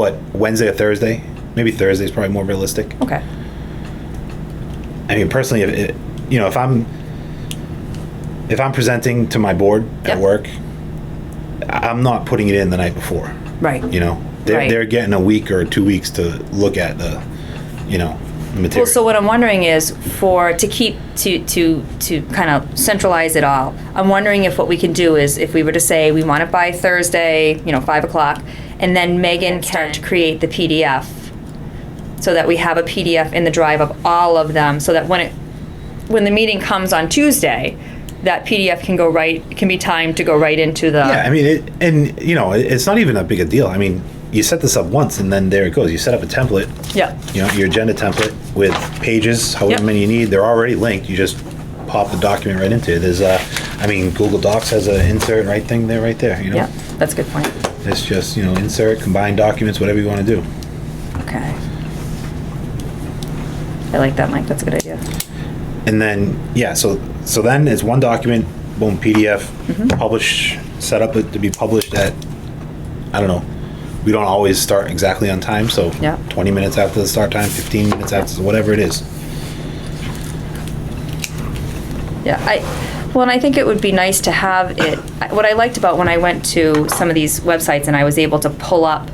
what Wednesday or Thursday. Maybe Thursday is probably more realistic. Okay. I mean, personally, if it, you know, if I'm if I'm presenting to my board Yep. at work, I- I'm not putting it in the night before. Right. You know, they're Right. they're getting a week or two weeks to look at the, you know, material. Well, so what I'm wondering is for, to keep, to, to, to kind of centralize it all, I'm wondering if what we can do is if we were to say we want it by Thursday, you know, five o'clock, and then Megan start to create the PDF so that we have a PDF in the drive of all of them so that when it, when the meeting comes on Tuesday, that PDF can go right, can be timed to go right into the. yeah, I mean, it, and you know, it, it's not even that big a deal. I mean, you set this up once, and then there it goes. You set up a template. Yeah. you know, your agenda template with pages, however Yep. many you need. They're already linked. You just pop the document right into it. There's a, I mean, Google Docs has an insert right thing there, right there. You know, Yeah, that's a good point. it's just you know, insert, combine documents, whatever you want to do. Okay. I like that, Mike. That's a good idea. And then yeah, so so then it's one document, boom, PDF, publish, set up it to be published at, I don't know. We don't always start exactly on time, so Yeah. 20 minutes after the start time, 15 minutes after, whatever it is. Yeah, I, well, and I think it would be nice to have it, I- what I liked about when I went to some of these websites and I was able to pull up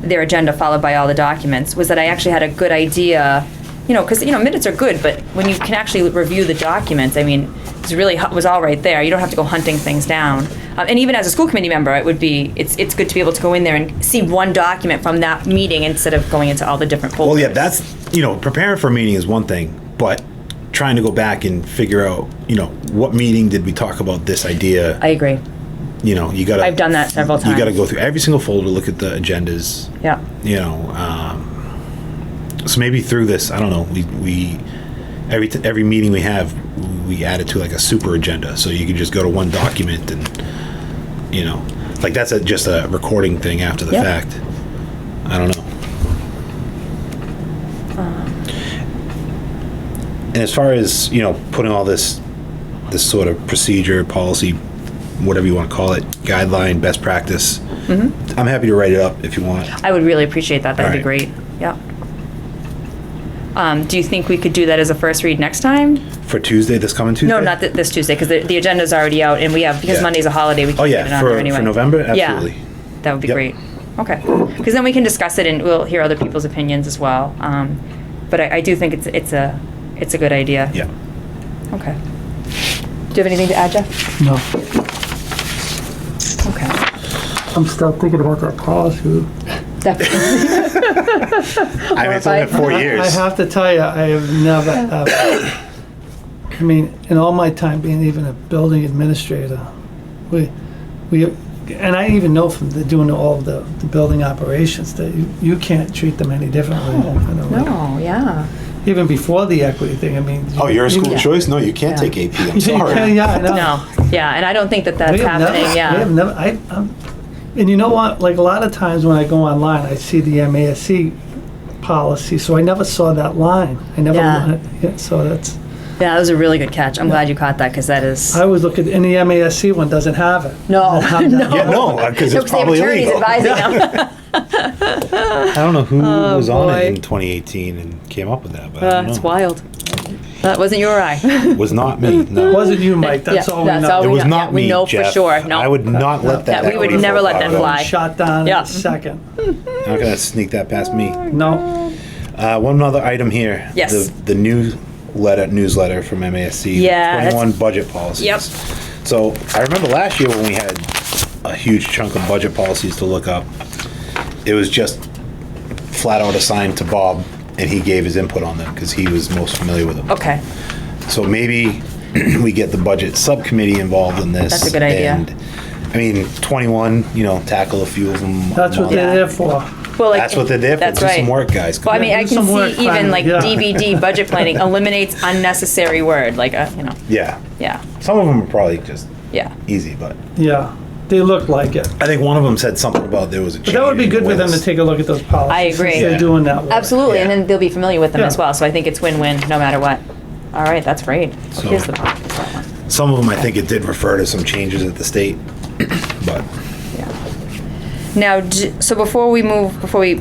their agenda followed by all the documents, was that I actually had a good idea, you know, because, you know, minutes are good, but when you can actually review the documents, I mean, it's really, hu- was all right there. You don't have to go hunting things down. Um, And even as a school committee member, it would be, it's, it's good to be able to go in there and see one document from that meeting instead of going into all the different folders. Well, yeah, that's you know, preparing for a meeting is one thing, but trying to go back and figure out, you know, what meeting did we talk about this idea? I agree. you know, you gotta. I've done that several You gotta times. go through every single folder, look at the agendas. Yeah. You know, um, so maybe through this, I don't know. We we every t- every meeting we have, we add it to like a super agenda, so you can just go to one document and you know, like that's a, just a recording thing after the Yep. fact. I don't know. And as far as you know, putting all this, this sort of procedure, policy, whatever you want to call it, guideline, best practice. I'm happy to write it up if you want. I would really appreciate that. That'd be All right. great. Yeah. Um, do you think we could do that as a first read next time? For Tuesday, this coming Tuesday. No, not th- this Tuesday, because the, the agenda's already out, and we have, because Yeah. Monday's a holiday, we Oh can't get it yeah, on for, there anyway. for November, Yeah. absolutely. That would be Yep. great. Okay. Because then we can discuss it, and we'll hear other people's opinions as well. Um, but I, I do think it's, it's a, it's a good idea. Yeah. Okay. Do you have anything to add, Jeff? No, Okay. I'm still thinking about that policy. Definitely. Oh, I mean, it's only been four years. I have to tell you, I have never, uh, I mean, in all my time being even a building administrator, we, we, and I even know from the, doing all of the, the building operations that you, you can't treat them any differently. you know, like, No, yeah. Even before the equity thing, I mean. oh, you're a school Yeah. choice? No, you can't Yeah. take AP. I'm You can- sorry. Yeah, I know. No, yeah, and I don't think that that's We have never- happening, yeah. We have never, I, I'm, and you know what, like a lot of times when I go online, I see the MASC policy, so I never saw that line. I never, Yeah. li- yeah, so that's, Yeah, that was a really good catch. I'm glad you caught that because that is. I always look at, and the MASC one doesn't have it. No, Doesn't have that. Yeah, no, because it's probably illegal. advising them. I don't know who was on Oh, boy. it in 2018 and came up with that, but I Uh, don't it's know. wild. That wasn't your eye. It was not me. No. It wasn't you, Mike, that's Yeah, all we that's all It know. we- was know- not Oh, yeah, me. we know for Jeff. sure. No. I would not let that. Yeah, we would equity never let profile that go. fly. Shot down in Yeah. a second. I'm not gonna sneak that past me. No, Uh, one other item here. Yes. The, the new letter newsletter from MASC. the Yeah, that's- 21 budget policies. Yep. So I remember last year when we had a huge chunk of budget policies to look up. It was just flat out assigned to Bob, and he gave his input on them because he was most familiar with them. okay. So maybe we get the budget subcommittee involved in this. That's a good idea. And, I mean, 21, you know, tackle a few of them. that's what they're there for. Well, That's what they're there for. That's Do right. some work, guys. Well, I mean, Yeah, I do can some work, see even finally, like yeah. DVD budget planning eliminates unnecessary word, like a you know, Yeah. yeah, Some of them are probably just yeah. easy, but Yeah, they look like it. I think one of them said something about there was a. But that would be good for them to take a look at those policies. agree. since Yeah. They're doing that work. Absolutely, and Yeah. then they'll be familiar with them Yeah. as well. So I think it's win-win, no matter what. All right, that's great. So- Here's the here's that one. Some of them, I think it did refer to some changes at the state, but. Yeah. Now, d- so before we move, before we